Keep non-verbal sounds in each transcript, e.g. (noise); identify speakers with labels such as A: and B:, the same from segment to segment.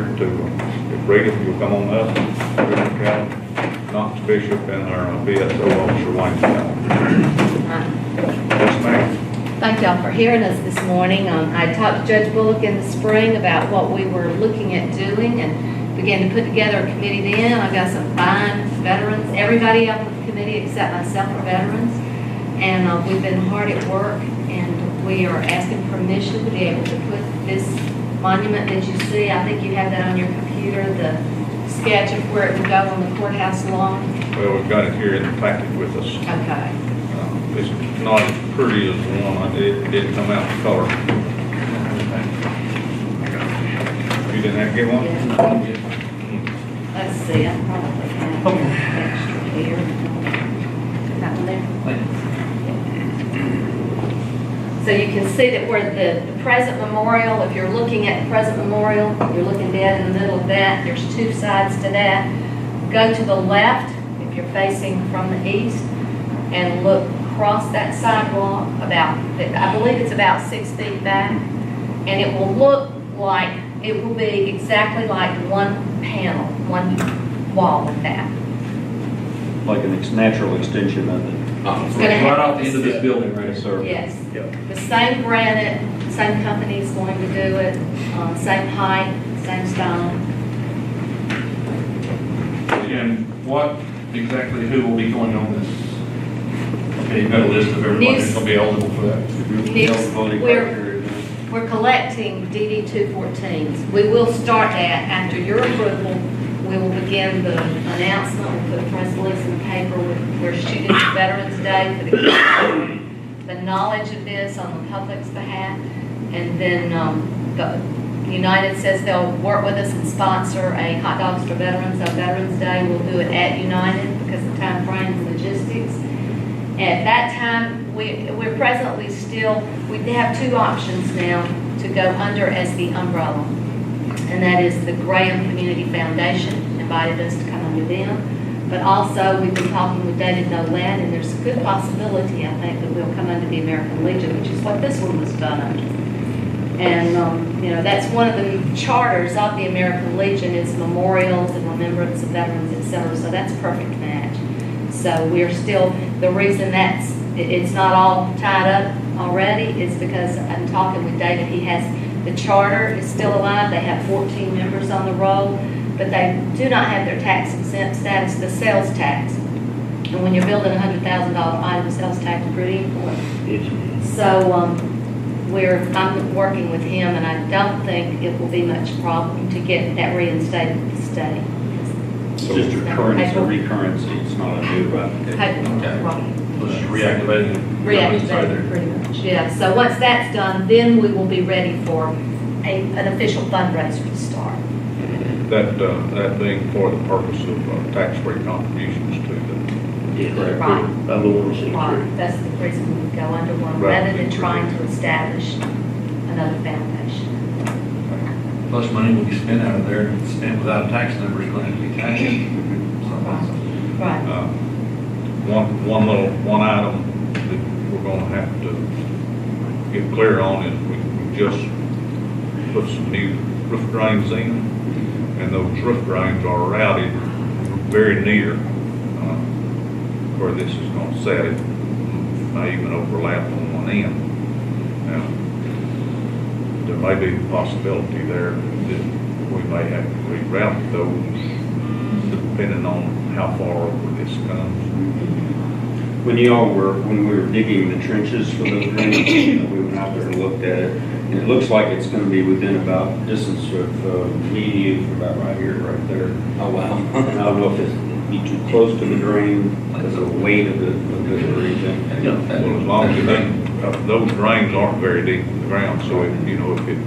A: here to, if Regan, you'll come on up, we're gonna try Knox Bishop and our BSO officer Wayne Scott. Yes, ma'am.
B: Uh, Thank y'all for hearing us this morning. Um, I talked to Judge Bullock in the spring about what we were looking at doing and began to put together a committee then. I've got some fine veterans, everybody on the committee except myself are veterans. And uh, we've been hard at work and we are asking permission to be able to put this monument that you see, I think you have that on your computer, the sketch of where it would go on the courthouse lawn.
A: Well, we've got it here in the packet with us.
B: Okay.
A: Uh, It's not as pretty as the one, I did, it didn't come out in color. You didn't have to get one?
B: Let's see, I probably have an extra here. That one there. So you can see that where the the present memorial, if you're looking at the present memorial, you're looking dead in the middle of that, there's two sides to that. Go to the left, if you're facing from the east, and look across that sidewalk about, I believe it's about six feet back. And it will look like, it will be exactly like one panel, one wall of that.
C: like an ex- natural extension of it.
B: It's gonna
D: Right
B: have
D: off the
B: this-
D: end of this building, right?
C: sir.
B: Yes.
C: Yep.
B: The same granite, same company's going to do it, uh, same height, same stone.
D: And what exactly, who will be going on this? Okay, you've got a list of everybody that's gonna be eligible for that.
B: Next, we're, we're collecting DD 214s. We will start that after your approval. We will begin the announcement, we'll put a press release in the paper. We're- We're shooting for Veterans Day for the, the (coughs) knowledge of this on the public's behalf. And then um, the United says they'll work with us and sponsor a hot dogs for veterans on Veterans Day. We'll do it at United because of time frame and logistics. At that time, we, we're presently still, we have two options now to go under as the umbrella. And that is the Graham Community Foundation invited us to come under them. But also, we've been talking with David Nolan, and there's a good possibility, I think, that we'll come under the American Legion, which is what this one was done under. And, um, you know, that's one of the charters of the American Legion, is memorials and remembrance of veterans, et cetera, so that's a perfect match. So we're still, the reason that's, it- it's not all tied up already is because I'm talking with David, he has, the charter is still alive, they have fourteen members on the roll, but they do not have their tax exempt status, the sales tax. And when you're building a hundred thousand dollar item, sales tax is pretty important. So, um, we're, I'm working with him, and I don't think it will be much problem to get that reinstated with the state.
C: It's just a recurrence, a recurrence, it's not a new application.
D: Let's reactivate it.
B: Reactivated, pretty much, yeah. So once that's done, then we will be ready for a, an official fundraiser to start.
A: That, uh, that being for the purpose of uh, tax-free contributions to the,
B: Right.
C: Other ones that are-
B: Right, that's the reason we go under one,
A: Right.
B: rather than trying to establish another foundation.
D: Plus money will be spent out of there, and spent without a tax number, it's going to be taxed. So,
B: Right.
A: uh, one, one little, one item that we're gonna have to get clear on is we we just put some new roof drains in, and those roof drains are routed very near, uh, where this is gonna set it. May even overlap on one end. Now, there may be a possibility there that we may have to reroute those depending on how far over this comes.
C: When y'all were, when we were digging the trenches for those rooms, uh, we went out there and looked at it, and it looks like it's gonna be within about distance of, uh, me and you, about right here, right there.
E: Oh, wow.
C: And I don't know if it's, it'd be too close to the drain, because of the weight of the, of the region.
A: Well, as long as it ain't, uh, those drains aren't very deep in the ground, so if, you know, if it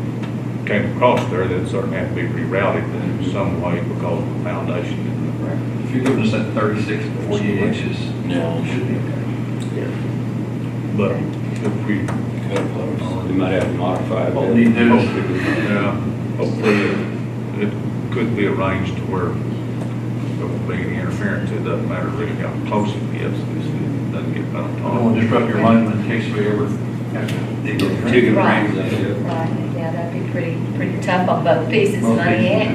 A: came across there, that'd certainly have to be rerouted in some way because of the foundation and the
D: If you're giving us that thirty-six to forty-eight inches,
E: No.
D: it should be okay.
A: But if we,
C: We might have to modify that.
D: All we need to do is-
A: yeah, hopefully it could be arranged to where there won't be any interference. It doesn't matter really how close it gets, it's- it doesn't get out of
D: I don't want
A: time.
D: to disrupt your monument in case we ever have to dig it.
C: Digging
B: Right.
C: rings, I guess.
B: Right, yeah, that'd be pretty, pretty tough on both pieces,
D: Both
B: money
D: pieces.
B: and